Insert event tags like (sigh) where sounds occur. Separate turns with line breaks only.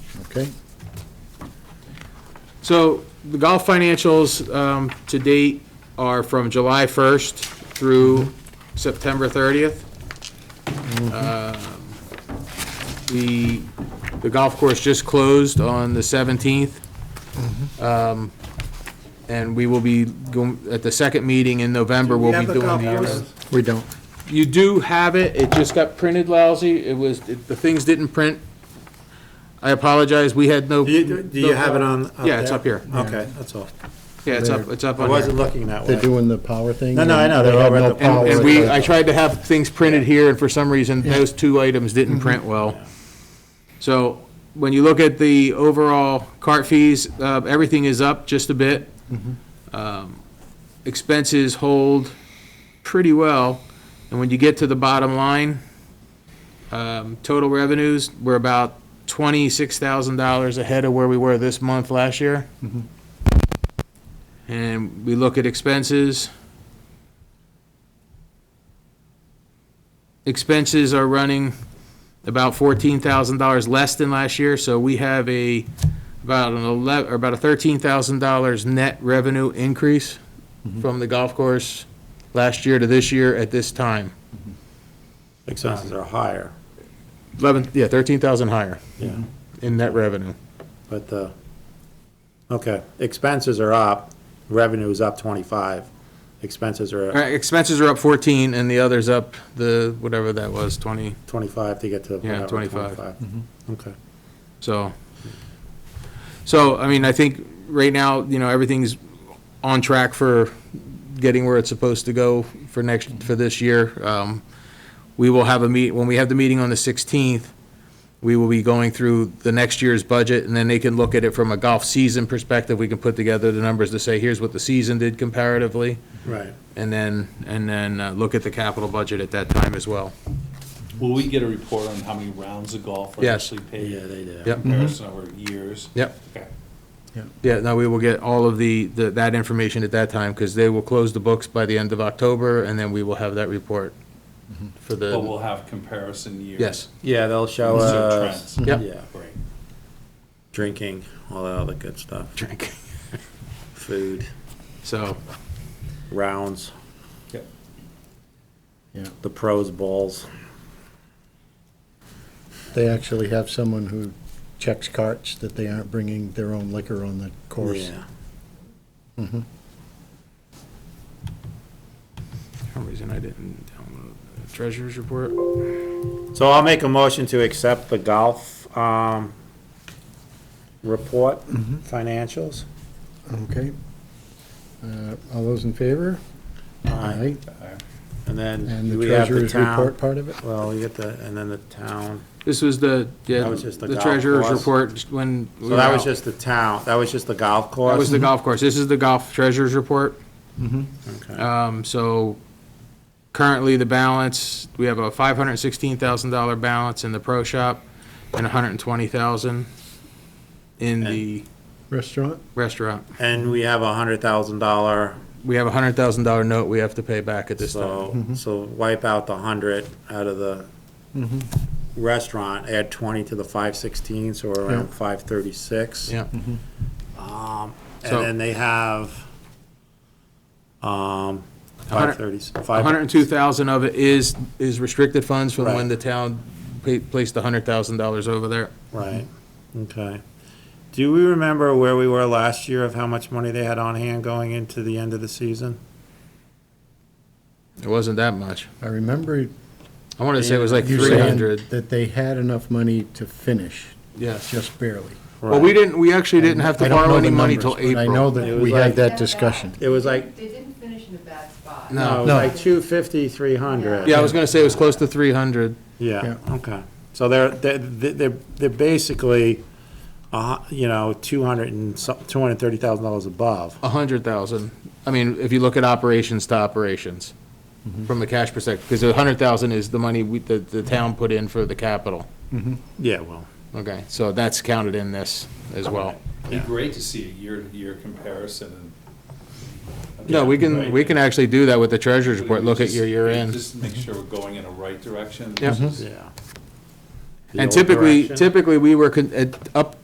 Okay,
So the golf financials um, to date are from July 1st through September 30th. Um, The, the golf course just closed on the 17th. Um, And we will be going, at the second meeting in November, we'll be doing the. year-end.
we don't.
You do have it, it just got printed lousy, it was, it- the things didn't print. I apologize, we had no.
Do you, do you have it on? up
Yeah, it's
there?
up here.
Okay, that's all.
Yeah, it's up, it's up
I
on here.
wasn't looking that
They're
way.
doing the power thing.
No, no, I know,
They
they're
have
all
no
at the power.
power.
And we, I tried to have things printed here, and for some reason, those two items didn't print well. So when you look at the overall cart fees, uh, everything is up just a bit. Um, Expenses hold pretty well, and when you get to the bottom line, um, total revenues, we're about twenty-six thousand dollars ahead of where we were this month last year. And we look at expenses, expenses are running about fourteen thousand dollars less than last year, so we have a, about an eleven, or about a thirteen thousand dollars net revenue increase from the golf course last year to this year at this time.
Expenses are higher,
Eleven, yeah, thirteen thousand higher
yeah,
in net revenue.
but the, okay, expenses are up, revenue is up twenty-five, expenses
All
are
right, expenses are up fourteen, and the other's up the, whatever that was, twenty,
twenty-five to get to
Yeah,
whatever,
25.
twenty-five. Okay,
so. So, I mean, I think right now, you know, everything's on track for getting where it's supposed to go for next, for this year. Um, We will have a meet, when we have the meeting on the 16th, we will be going through the next year's budget, and then they can look at it from a golf season perspective. We can put together the numbers to say, here's what the season did comparatively,
right.
and then, and then uh, look at the capital budget at that time as well.
Will we get a report on how many rounds of golf are
Yes.
actually
Yeah,
paid?
they did.
Yep. Mm-hmm.
Comparison over years?
Yep.
Okay.
Yeah, no, we will get all of the, the- that information at that time, because they will close the books by the end of October, and then we will have that report
Mm-hmm.
for the.
But we'll have comparison years?
Yes,
Yeah, they'll show
So
us,
trends.
Yep.
uh, yeah,
Great.
drinking, all that other good stuff,
drink. (laughs)
food,
So,
rounds,
Yep.
the pros bowls.
They actually have someone who checks carts that they aren't bringing their own liquor on the course.
Yeah.
for some reason I didn't download the treasurer's report.
So I'll make a motion to accept the golf, um, report,
Mm-hmm.
financials.
Okay. Uh, All those in favor?
Aye.
Alright.
And then
And
do
the
we have the
treasurer's
town.
report part of it?
Well, you get the, and then the town.
This was the, yeah,
That was just the
the
golf
treasurer's
course.
report just when. we
So that
were
was
out.
just the town, that was just the golf course? Mm-hmm.
That was the golf course. This is the golf treasurer's report.
Mm-hmm.
Okay.
Um, so currently the balance, we have a five hundred and sixteen thousand dollar balance in the pro shop and a hundred and twenty thousand in the
Restaurant?
restaurant.
And we have a hundred thousand dollar,
We have a hundred thousand dollar note we have to pay back at this time.
so,
Mm-hmm.
so wipe out the hundred out of the
Mm-hmm.
restaurant, add twenty to the five sixteen, so we're around
Yeah.
five thirty-six.
Yeah,
Um, and
So-
then they have, um,
hundred-
five thirty,
a
five.
hundred and two thousand of it is, is restricted funds from when
Right.
the town pa- placed a hundred thousand dollars over there.
Right, okay. Do we remember where we were last year of how much money they had on hand going into the end of the season?
It wasn't that much.
I remember
I wanted to say it was like
you
three
saying
hundred,
that they had enough money to finish,
yes.
just barely.
Well, we didn't, we actually didn't have
I
to
don't
borrow
know
any
the
money
numbers,
till
but I know
April.
It
that
was
we
like-
had that
Yeah.
discussion.
It was like,
They didn't finish in a bad spot.
No.
no, it was like two fifty, three hundred.
Yeah, I was gonna say it was close to three hundred.
Yeah, okay. So they're, they're, they're, they're basically, uh, you know, two hundred and some, two hundred and thirty thousand dollars above.
A hundred thousand. I mean, if you look at operations to operations,
Mm-hmm.
from a cash perspective, because a hundred thousand is the money we, the, the town put in for the capital.
Yeah, well,
Okay, so that's counted in this as well.
It'd be great to see a year-to-year comparison and.
No, we can, we can actually do that with the treasurer's report, look at your year end.
Just make sure we're going in the right direction.
Yeah.
Mm-hmm.
versus-
yeah.
And
The old
typically,
direction.
typically, we were, con- at- up